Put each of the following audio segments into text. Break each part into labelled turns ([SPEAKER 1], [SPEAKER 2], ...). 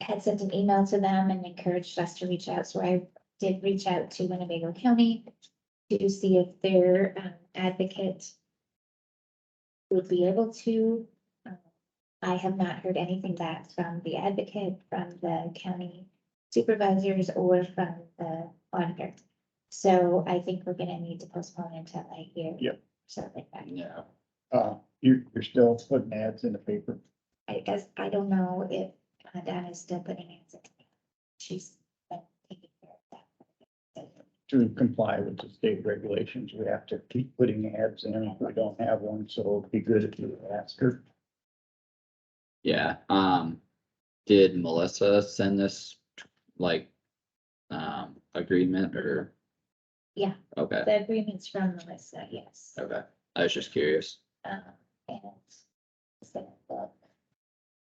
[SPEAKER 1] had sent an email to them and encouraged us to reach out, so I did reach out to Winnebago County to see if their um, advocate would be able to. Um, I have not heard anything back from the advocate, from the county supervisors, or from the auditor. So I think we're gonna need to postpone until I hear.
[SPEAKER 2] Yep.
[SPEAKER 1] Something back.
[SPEAKER 3] Yeah.
[SPEAKER 2] Uh, you, you're still putting ads in the paper.
[SPEAKER 1] I guess, I don't know if uh, Donna's still putting it. She's been taking care of that.
[SPEAKER 2] To comply with the state regulations, we have to keep putting ads in. if We don't have one, so it'd be good if you ask her.
[SPEAKER 3] Yeah, um, did Melissa send this, like, um, agreement or?
[SPEAKER 1] Yeah.
[SPEAKER 3] Okay,
[SPEAKER 1] The agreement's from Melissa, yes.
[SPEAKER 3] okay, I was just curious.
[SPEAKER 1] Um, and it's gonna look.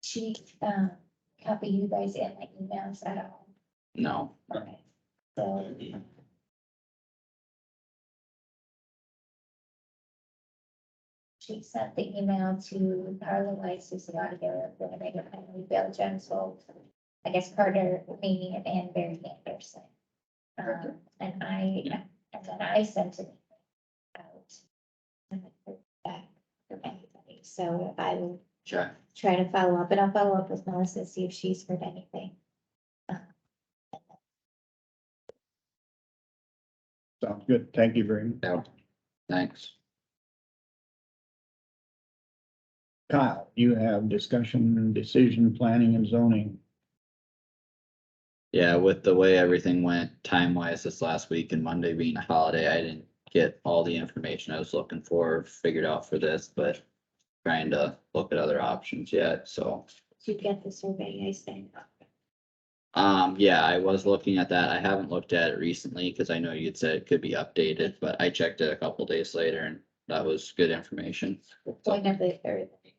[SPEAKER 1] She, um, copy you guys in my emails at all.
[SPEAKER 3] No,
[SPEAKER 1] Okay, so. She sent the email to Carla Weiss, who's the auditor of Winnebago County, Bill Jonesel, I guess Carter, me, and Barry Anderson. Um, and I,
[SPEAKER 3] Yeah.
[SPEAKER 1] and then I sent it out. and I heard back from anybody. So I will
[SPEAKER 3] sure,
[SPEAKER 1] try to follow up, and I'll follow up with Melissa, see if she's heard anything.
[SPEAKER 2] Sounds good. Thank you very much.
[SPEAKER 3] yeah, thanks.
[SPEAKER 2] Kyle, you have discussion and decision planning and zoning.
[SPEAKER 3] Yeah, with the way everything went time wise this last week and Monday being a holiday, I didn't get all the information I was looking for, figured out for this, but. Trying to look at other options yet, so,
[SPEAKER 1] Did you get the survey I sent?
[SPEAKER 3] um, yeah, I was looking at that. I haven't looked at it recently, cause I know you'd said it could be updated, but I checked it a couple days later and that was good information.
[SPEAKER 1] The point of the, or the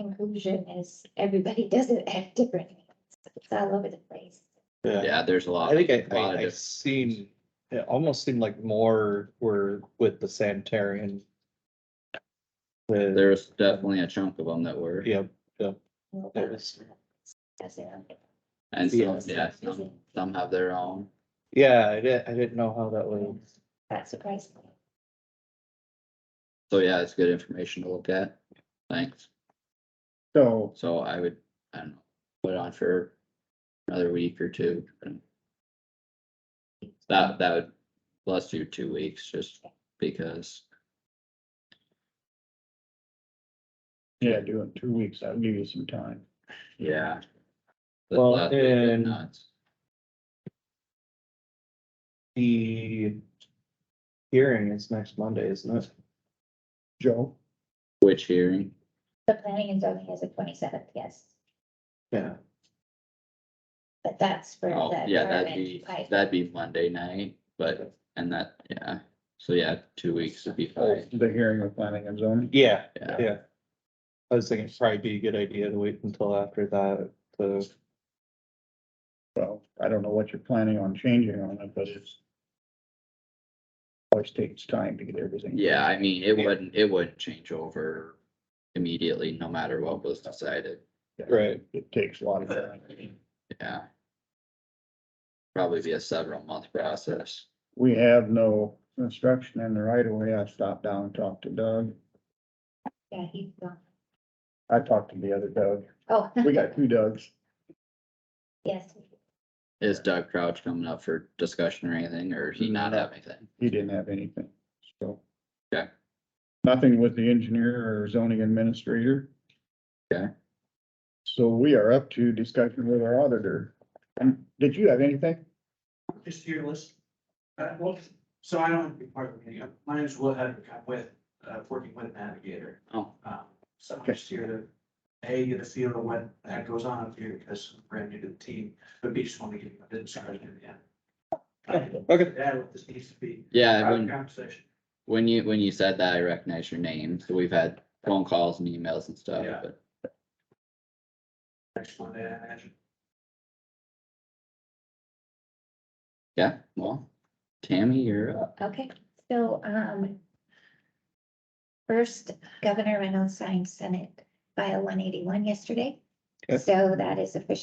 [SPEAKER 1] conclusion is everybody does it at different, rates. it's all over the place.
[SPEAKER 3] Yeah, there's a lot.
[SPEAKER 4] I think I,
[SPEAKER 3] lot of
[SPEAKER 4] I, I
[SPEAKER 3] different-
[SPEAKER 4] seen, it almost seemed like more were with the sanitarian. The,
[SPEAKER 3] There's definitely a chunk of them that were,
[SPEAKER 4] yeah, There
[SPEAKER 1] Does
[SPEAKER 4] is.
[SPEAKER 1] it on the-
[SPEAKER 3] and some,
[SPEAKER 4] Yes.
[SPEAKER 3] yeah, some, some have their own.
[SPEAKER 4] yeah, I didn't, I didn't know how that was.
[SPEAKER 1] That surprised me.
[SPEAKER 3] So yeah, it's good information to look at. Thanks.
[SPEAKER 2] So
[SPEAKER 3] So I would, I don't know, put it on for another week or two. That, that would, let's do two weeks just because,
[SPEAKER 2] Yeah, do it in two weeks. I'll give you some time.
[SPEAKER 3] yeah. The
[SPEAKER 4] Well,
[SPEAKER 3] last week was
[SPEAKER 4] and-
[SPEAKER 3] nuts.
[SPEAKER 4] The hearing is next Monday, isn't it?
[SPEAKER 2] Joe,
[SPEAKER 3] Which hearing?
[SPEAKER 1] The planning and zoning is the twenty-seventh, yes,
[SPEAKER 4] Yeah,
[SPEAKER 1] but that's for
[SPEAKER 3] Oh,
[SPEAKER 1] the.
[SPEAKER 3] yeah, that'd
[SPEAKER 1] permit
[SPEAKER 3] be,
[SPEAKER 1] type.
[SPEAKER 3] that'd be Monday night, but, and that, yeah. So yeah, two weeks would be
[SPEAKER 2] the
[SPEAKER 3] fine.
[SPEAKER 2] hearing of planning and zoning.
[SPEAKER 4] yeah,
[SPEAKER 3] Yeah.
[SPEAKER 4] yeah. I was thinking it'd probably be a good idea to wait until after that, to
[SPEAKER 2] Well, I don't know what you're planning on changing on it, but it's always takes time to get everything.
[SPEAKER 3] Yeah, I mean, it
[SPEAKER 4] Yeah.
[SPEAKER 3] wouldn't, it wouldn't change over immediately, no matter what was decided.
[SPEAKER 4] right,
[SPEAKER 2] It takes a lot of time.
[SPEAKER 3] Yeah. Probably be a several month process.
[SPEAKER 2] We have no instruction in the right of way. I stopped down and talked to Doug.
[SPEAKER 1] Yeah, he's gone.
[SPEAKER 2] I talked to the other Doug.
[SPEAKER 1] Oh,
[SPEAKER 2] We got two Dougs.
[SPEAKER 1] yes,
[SPEAKER 3] Is Doug Crouch coming up for discussion or anything, or he not
[SPEAKER 2] No.
[SPEAKER 3] have anything?
[SPEAKER 2] He didn't have anything, so.
[SPEAKER 3] Okay.
[SPEAKER 2] Nothing with the engineer or zoning administrator.
[SPEAKER 3] Okay.
[SPEAKER 2] So we are up to discussion with our auditor. Um, Did you have anything?
[SPEAKER 5] Just to your list. Uh, well, so I don't have to be part of the meeting. Uh, My name's Will Hedrick. I'm with, uh, working with Navigator.
[SPEAKER 3] Oh.
[SPEAKER 5] Um, so I'm just here to, A, get a feel of what the heck goes on up here because I'm brand new to the team, but B, just want to give you a bit of started in the end. Uh,
[SPEAKER 4] okay,
[SPEAKER 5] Yeah, what this needs to be.
[SPEAKER 3] Yeah,
[SPEAKER 5] Private
[SPEAKER 3] when,
[SPEAKER 5] Conversation.
[SPEAKER 3] when you, when you said that, I recognize your name, so we've had phone calls and emails and stuff,
[SPEAKER 5] Yeah.
[SPEAKER 3] but
[SPEAKER 5] Next Monday, I imagine.
[SPEAKER 3] yeah, well. Tammy, you're up.
[SPEAKER 1] okay, so, um. First, Governor Reynolds signed Senate File one eighty-one yesterday,
[SPEAKER 4] Okay.
[SPEAKER 1] so that is official.